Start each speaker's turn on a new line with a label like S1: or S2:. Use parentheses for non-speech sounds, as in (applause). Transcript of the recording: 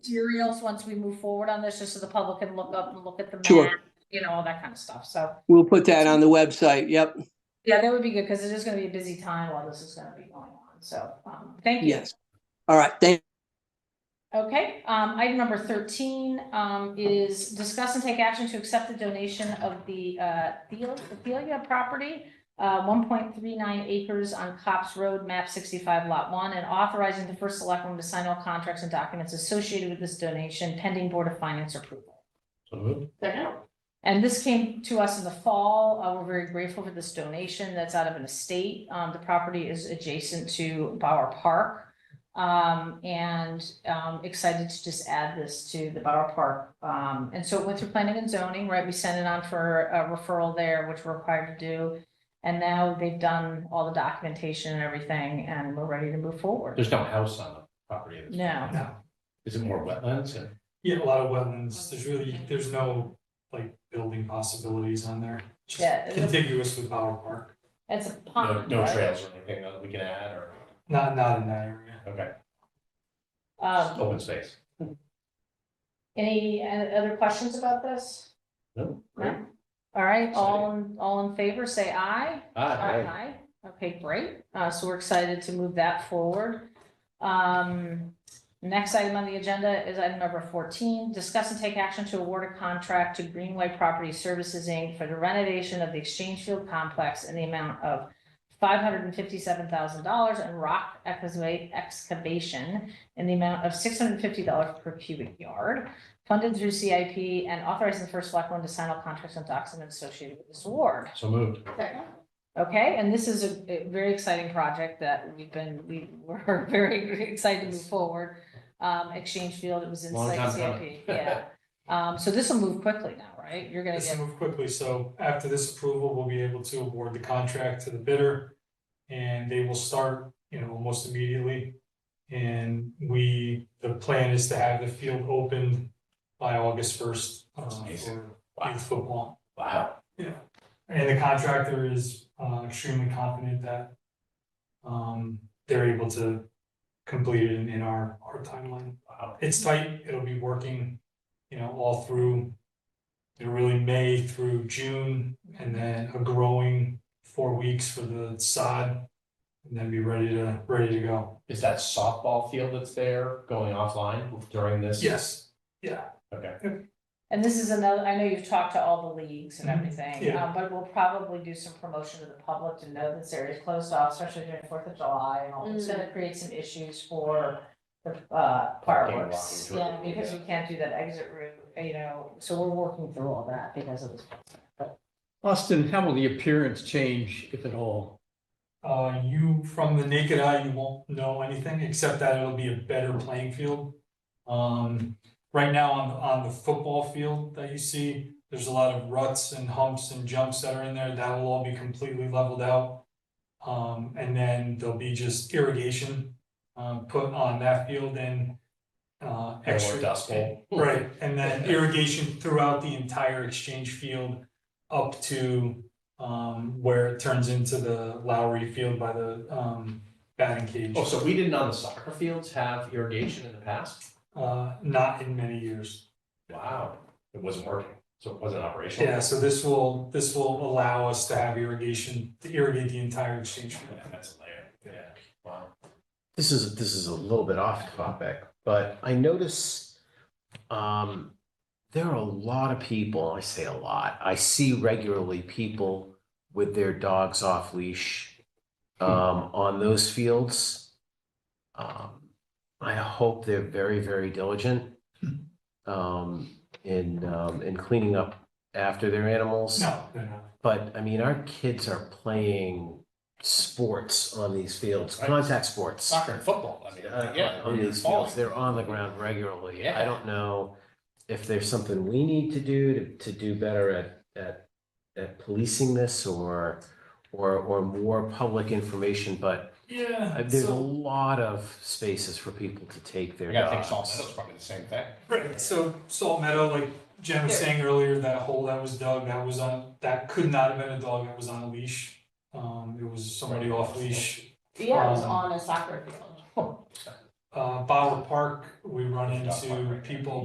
S1: materials once we move forward on this, just so the public can look up and look at the
S2: Sure.
S1: map, you know, all that kind of stuff, so.
S2: We'll put that on the website. Yep.
S1: Yeah, that would be good, because it is gonna be a busy time while this is gonna be going on, so, um, thank you.
S2: Yes. All right. Thank,
S1: Okay, um, item number thirteen, um, is discuss and take action to accept the donation of the, uh, Theo- Thelia property, uh, one point three nine acres on Cops Road, map sixty-five, lot one, and authorizing the first selectman to sign all contracts and documents associated with this donation pending Board of Finance approval.
S3: So moved.
S1: And this came to us in the fall. Uh, we're very grateful for this donation that's out of an estate. Um, the property is adjacent to Bauer Park. Um, and, um, excited to just add this to the Bauer Park. Um, and so it went through planning and zoning, right? We sent it on for a referral there, which we're required to do. And now they've done all the documentation and everything, and we're ready to move forward.
S3: There's no house on the property. at this
S1: No.
S3: point, Is it more wetlands or?
S4: Yeah, a lot of wetlands, there's really, there's no like building possibilities on there, just
S1: Yeah, it-
S4: contiguous with Bauer Park,
S1: It's a
S3: No,
S1: pond,
S3: no
S1: right?
S3: trails or anything that we can add or,
S4: not, not in that area.
S3: okay,
S1: Um,
S3: open space.
S1: Any uh, other questions about this?
S3: No, great.
S1: No? All right, all, in all in favor, say aye.
S3: Ah,
S1: Okay, great. Uh, so we're excited to move that forward. Um, next item on the agenda is item number fourteen, discuss and take action to award a contract to Greenway Property Services, Inc. for the renovation of the Exchange Field Complex in the amount of five hundred and fifty-seven thousand dollars and rock excavate- excavation in the amount of six hundred and fifty dollars per cubic yard, funded through CIP and authorizing the first selectman to sign all contracts and documents associated with this award.
S3: So moved.
S1: Okay, and this is a- a very exciting project that we've been, we were (laughs) very excited to move forward. Um, Exchange Field, it was in
S3: Long
S1: site
S3: time coming.
S1: CIP,
S3: (laughs)
S1: yeah. Um, so this will move quickly now, right? You're gonna
S4: Let's
S1: get,
S4: move quickly, so after this approval, we'll be able to award the contract to the bidder. And they will start, you know, almost immediately. And we, the plan is to have the field opened by August first, um,
S3: Amazing.
S4: for youth football.
S3: Wow.
S4: Yeah, and the contractor is uh, extremely confident that um, they're able to complete it in- in our, our timeline.
S3: Wow.
S4: It's tight, it'll be working, you know, all through, you know, really May through June, and then a growing four weeks for the sod, and then be ready to, ready to go.
S3: Is that softball field that's there going offline during this?
S4: Yes, yeah,
S3: Okay,
S1: and this is another, I know you've talked to all the leagues and
S3: Mm-hmm.
S4: Mhm,
S1: everything,
S4: yeah.
S1: um, but we'll probably do some promotion to the public to know this area is closed off, especially during Fourth of July and all. It's
S5: Mm.
S1: gonna create some issues for the, uh,
S3: Parking lot,
S1: fireworks.
S3: which
S1: Yeah,
S3: would-
S1: because we can't do that exit route, you know, so we're working through all that because of this.
S6: Austin, how will the appearance change, if at all?
S4: uh, you, from the naked eye, you won't know anything, except that it'll be a better playing field. Um, right now on, on the football field that you see, there's a lot of ruts and humps and jumps that are in there, that will all be completely leveled out. Um, and then there'll be just irrigation, um, put on that field and, uh,
S3: No
S4: extra.
S3: more dust bowl.
S4: (laughs) Right, and then irrigation throughout the entire exchange field up to um where it turns into the Lowry Field by the um batting cage.
S3: Oh, so we didn't on the soccer fields have irrigation in the past?
S4: Uh, not in many years.
S3: Wow, it wasn't working, so it wasn't operational.
S4: Yeah, so this will, this will allow us to have irrigation, to irrigate the entire exchange field.
S3: Yeah, That's a layer, yeah, wow.
S7: This is, this is a little bit off topic, but I notice um, there are a lot of people, I say a lot, I see regularly people with their dogs off leash um, on those fields. Um, I hope they're very, very diligent um, in, um, in cleaning up after their animals.
S4: No, they're not.
S7: But I mean, our kids are playing sports on these fields,
S3: Right.
S7: contact sports
S3: Soccer and football, I mean,
S7: uh,
S3: yeah.
S7: on these
S3: falling.
S7: fields. They're on the ground regularly.
S3: Yeah.
S7: I don't know if there's something we need to do to, to do better at, at, at policing this or, or, or more public information, but
S4: Yeah.
S7: uh, there's a
S4: so-
S7: lot of spaces for people to take
S3: I
S7: their
S3: gotta think Salt
S7: dogs.
S3: Meadows probably the same thing.
S4: Right, so Salt Meadow, like Jen was saying earlier, that hole that was dug, that was on, that could not have been a dog that was on a leash. Um, it was somebody off leash.
S5: Yeah, it was
S4: Um,
S5: on a soccer field.
S4: uh, Bauer Park, we run into people